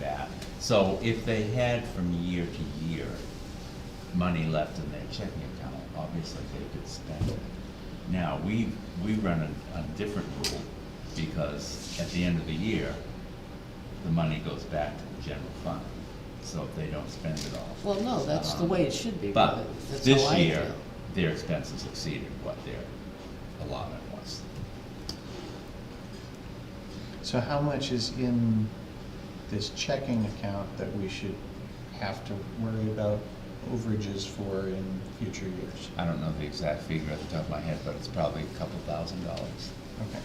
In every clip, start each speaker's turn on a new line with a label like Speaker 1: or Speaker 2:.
Speaker 1: that. So if they had from year to year money left in their checking account, obviously they could spend it. Now, we, we run a, a different rule because at the end of the year, the money goes back to the general fund. So if they don't spend it all.
Speaker 2: Well, no, that's the way it should be.
Speaker 1: But
Speaker 2: That's how
Speaker 1: this
Speaker 2: I
Speaker 1: year,
Speaker 2: feel.
Speaker 1: their expenses exceeded what their allotment was.
Speaker 3: So how much is in this checking account that we should have to worry about overages for in future years?
Speaker 1: I don't know the exact figure at the top of my head, but it's probably a couple thousand dollars.
Speaker 3: Okay.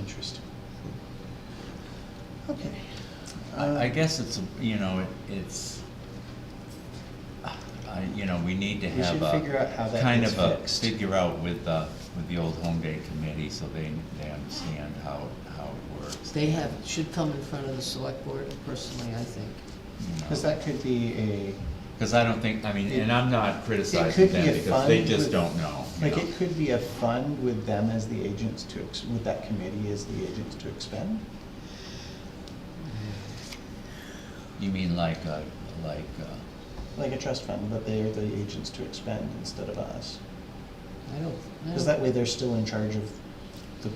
Speaker 3: Interesting. Okay.
Speaker 1: I, I
Speaker 3: Uh,
Speaker 1: guess it's, a- you know, it- it's, I, you know, we need to
Speaker 3: We
Speaker 1: have
Speaker 3: should
Speaker 1: a.
Speaker 3: figure out how that
Speaker 1: Kind
Speaker 3: gets
Speaker 1: of a,
Speaker 3: fixed.
Speaker 1: figure out with the, with the old home day committee, so they, they understand how, how it works.
Speaker 2: They have, should come in front of the select board personally, I think.
Speaker 3: Cause that could be a,
Speaker 1: Because I don't think, I mean, and I'm not
Speaker 3: it
Speaker 1: criticizing
Speaker 3: could be
Speaker 1: them,
Speaker 3: a
Speaker 1: because they
Speaker 3: fund
Speaker 1: just
Speaker 3: with-
Speaker 1: don't know. you
Speaker 3: like,
Speaker 1: know.
Speaker 3: it could be a fund with them as the agents to, ex- with that committee as the agents to expend?
Speaker 1: You mean like, uh, like, uh,
Speaker 3: Like a trust fund, but they are the agents to expend instead of us.
Speaker 2: I don't, I
Speaker 3: Cause that
Speaker 2: don't,
Speaker 3: way they're still in charge of the,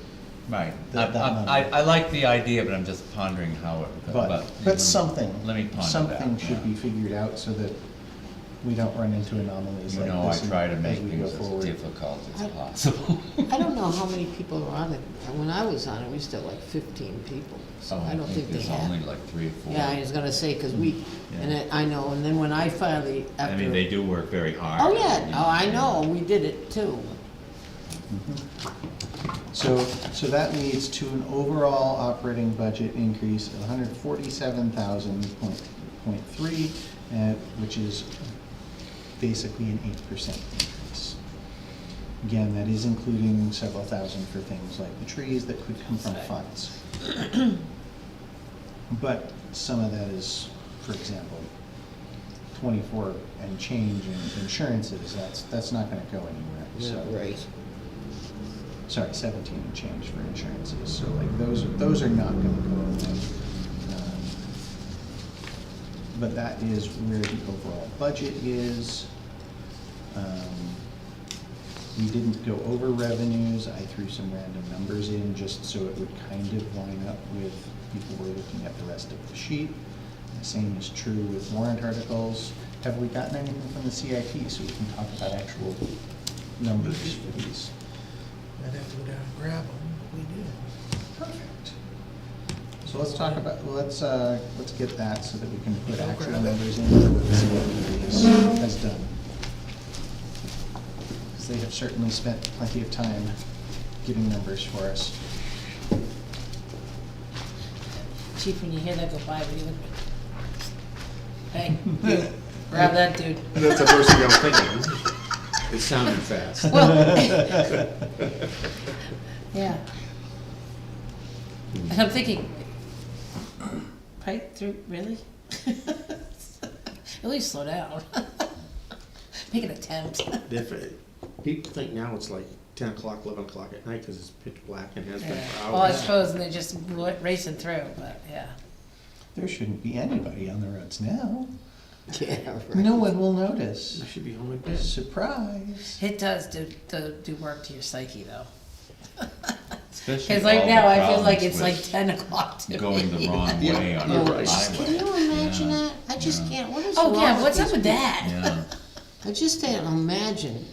Speaker 1: right, I,
Speaker 3: That- that
Speaker 1: I, I
Speaker 3: number.
Speaker 1: I like the idea, but I'm just pondering how it, but.
Speaker 3: but, but something.
Speaker 1: Let me ponder that.
Speaker 3: Something should
Speaker 1: yeah.
Speaker 3: be figured out so that we don't run into anomalies
Speaker 1: You
Speaker 3: like
Speaker 1: know, I
Speaker 3: this
Speaker 1: try to
Speaker 3: as
Speaker 1: make
Speaker 3: we go
Speaker 1: things as
Speaker 3: forward.
Speaker 1: difficult as
Speaker 2: I-
Speaker 1: possible.
Speaker 2: I don't know how many people are on it. And When I was on it, we still had like fifteen people, so
Speaker 1: Oh,
Speaker 2: I don't think they
Speaker 1: There's only
Speaker 2: have.
Speaker 1: like three or four.
Speaker 2: Yeah, I was gonna say, because we, and
Speaker 1: Yeah.
Speaker 2: I I know, and then when I finally, after.
Speaker 1: I mean, they do work very hard.
Speaker 2: Oh, yeah,
Speaker 1: you
Speaker 2: oh, I know, we did it too.
Speaker 3: So, so that leads to an overall operating budget increase of hundred forty-seven thousand point, point three, uh, which is basically an eight percent increase. Again, that is including several thousand for things like the trees that could come from funds. But some of that is, for example, twenty-four and change in insurances, that's, that's not gonna go anywhere, so.
Speaker 2: Right.
Speaker 3: sorry, seventeen and change for insurances, so like, those, those are not gonna go away. Um, But that is where the overall budget is. Um, We didn't go over revenues, I threw some random numbers in just so it would kind of line up with people were looking at the rest of the sheet. The same is true with warrant articles. Have we gotten anything from the CIP, so we can talk about actual numbers for these?
Speaker 4: I'd have to go down and grab them, but we did.
Speaker 3: Perfect. So let's talk about, let's, uh, let's get that so that we can put actual numbers in for what the CIP is- has done. Because they have certainly spent plenty of time giving numbers for us.
Speaker 5: Chief, when you hear that go by, what do you look? Hey, dude, grab that dude.
Speaker 6: That's the first thing I'm thinking. It sounded fast.
Speaker 5: Well, yeah. And I'm thinking, right through, really? At least slow down. Make an attempt.
Speaker 6: If it- People think now it's like ten o'clock, eleven o'clock at night because it's pitch black and has been for
Speaker 5: Yeah. Well, I
Speaker 6: hours.
Speaker 5: suppose they're just r- racing through, but yeah.
Speaker 3: There shouldn't be anybody on the roads now.
Speaker 2: Yeah, right.
Speaker 3: No one will notice.
Speaker 6: I should be home at bed.
Speaker 3: Surprise.
Speaker 5: It does do, do, do work to your psyche though.
Speaker 1: Especially
Speaker 5: Cause like
Speaker 1: all the
Speaker 5: now, I feel
Speaker 1: problems
Speaker 5: like it's like
Speaker 1: with
Speaker 5: ten o'clock to me.
Speaker 1: Going the wrong way on
Speaker 6: Yeah,
Speaker 1: a
Speaker 6: right.
Speaker 1: highway.
Speaker 2: Can you imagine
Speaker 1: Yeah.
Speaker 2: that? I just
Speaker 1: Yeah.
Speaker 2: can't, what is wrong
Speaker 5: Oh,
Speaker 2: with
Speaker 5: yeah, what's
Speaker 2: these
Speaker 5: up with that?
Speaker 1: Yeah,
Speaker 2: I just can't imagine.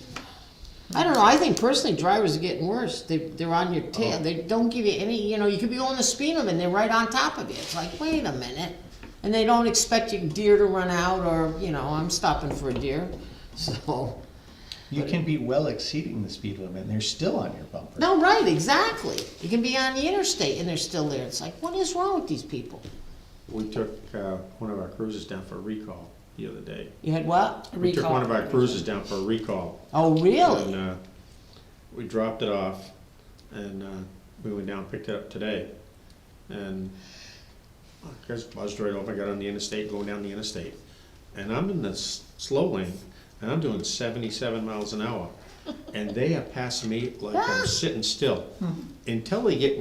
Speaker 2: I don't know, I think personally drivers are getting worse, they, they're on your tail, they don't give you any, you know, you could be going the speed limit and they're right on top of you, it's like, wait a minute. And they don't expect your deer to run out, or, you know, I'm stopping for a deer, so,
Speaker 3: You can be well exceeding the speed limit and they're still on your bumper.
Speaker 2: no, right, exactly. You can be on the interstate and they're still there, it's like, what is wrong with these people?
Speaker 6: We took, uh, one of our cruises down for a recall the other day.
Speaker 2: You had what?
Speaker 6: We took
Speaker 5: Recall.
Speaker 6: one of our cruises down for a recall.
Speaker 2: Oh,
Speaker 6: And,
Speaker 2: really?
Speaker 6: uh, we dropped it off and, uh, we went down, and picked it up today. And I just buzzed right off. I got on the interstate, going down the interstate. And I'm in the s- slow lane and I'm doing seventy-seven miles an hour. And they are passing me like I'm sitting still until they get